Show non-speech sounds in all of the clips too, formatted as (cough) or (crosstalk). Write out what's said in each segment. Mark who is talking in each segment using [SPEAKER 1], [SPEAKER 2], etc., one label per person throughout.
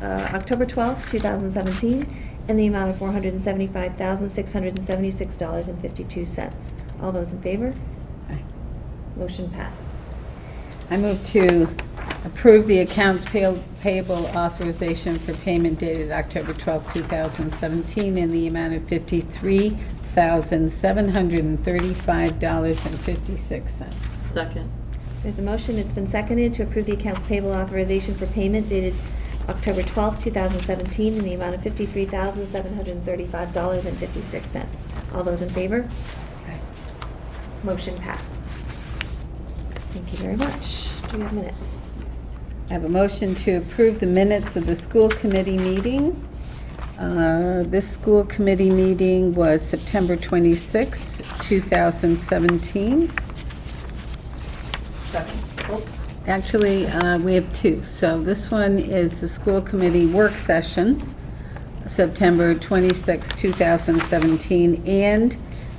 [SPEAKER 1] uh, October 12th, 2017, in the amount of $475,676.52. All those in favor?
[SPEAKER 2] Aye.
[SPEAKER 1] Motion passes.
[SPEAKER 2] I move to approve the accounts pay- payable authorization for payment dated October 12, 2017, in the amount of $53,735.56.
[SPEAKER 3] Second.
[SPEAKER 1] There's a motion, it's been seconded, to approve the accounts payable authorization for payment dated October 12th, 2017, in the amount of $53,735.56. All those in favor? Motion passes. Thank you very much. Do we have minutes?
[SPEAKER 2] I have a motion to approve the minutes of the school committee meeting. Uh, This school committee meeting was September 26, 2017.
[SPEAKER 3] Second. Oops.
[SPEAKER 2] Actually, uh, we have two. So this one is the school committee work session, September 26, 2017, and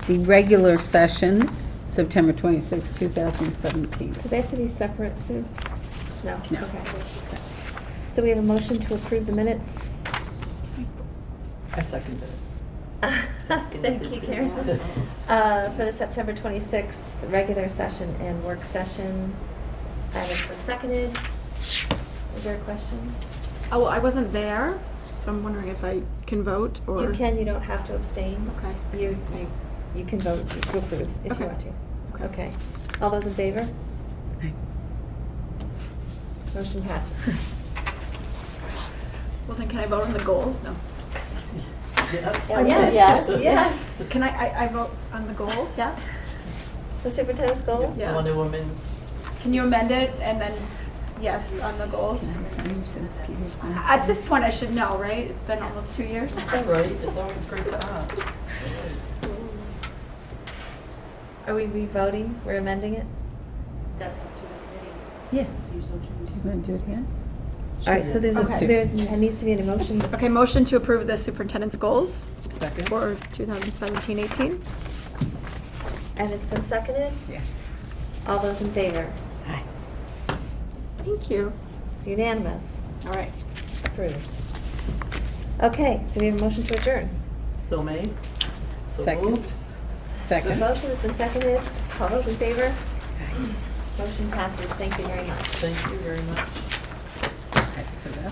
[SPEAKER 2] the regular session, September 26, 2017.
[SPEAKER 1] Do they have to be separate, Sue? No?
[SPEAKER 2] No.
[SPEAKER 1] Okay. So we have a motion to approve the minutes.
[SPEAKER 3] I seconded it.
[SPEAKER 1] (laughs) Thank you, Karen. (laughs) Uh, For the September 26th, regular session and work session. That has been seconded. Is there a question?
[SPEAKER 4] Oh, well, I wasn't there, so I'm wondering if I can vote or.
[SPEAKER 1] You can, you don't have to abstain.
[SPEAKER 4] Okay.
[SPEAKER 1] You, you you can vote to approve if you
[SPEAKER 4] Okay.
[SPEAKER 1] want to.
[SPEAKER 4] Okay.
[SPEAKER 1] Okay. All those in favor?
[SPEAKER 2] Aye.
[SPEAKER 1] Motion passes.
[SPEAKER 4] (laughs) Well, then can I vote on the goals? No.
[SPEAKER 3] Yes.
[SPEAKER 1] Yes, yes.
[SPEAKER 4] Can I, I, I vote on the goal? Yeah?
[SPEAKER 1] The superintendent's goals?
[SPEAKER 4] Yeah.
[SPEAKER 3] The Wonder Woman.
[SPEAKER 4] Can you amend it and then, yes, on the goals?
[SPEAKER 2] Since Peter's not-
[SPEAKER 4] Uh, At this point, I should know, right? It's been almost two years.
[SPEAKER 3] That's right, it's always great to ask.
[SPEAKER 1] Are we re-voting? We're amending it?
[SPEAKER 2] Yeah. Do you want to do it again?
[SPEAKER 1] All right, so there's a,
[SPEAKER 2] Okay.
[SPEAKER 1] there there needs to be an emotion.
[SPEAKER 4] Okay, motion to approve the superintendent's goals
[SPEAKER 3] Second.
[SPEAKER 4] for 2017-18.
[SPEAKER 1] And it's been seconded?
[SPEAKER 2] Yes.
[SPEAKER 1] All those in favor?
[SPEAKER 2] Aye.
[SPEAKER 4] Thank you.
[SPEAKER 1] It's unanimous.
[SPEAKER 4] All right.
[SPEAKER 1] Approved. Okay, do we have a motion to adjourn?
[SPEAKER 3] So made. So
[SPEAKER 2] Second.
[SPEAKER 3] moved.
[SPEAKER 1] The
[SPEAKER 2] Second.
[SPEAKER 1] motion has been seconded. All those in favor? Motion passes. Thank you very much.
[SPEAKER 3] Thank you very much.
[SPEAKER 2] Okay, so that-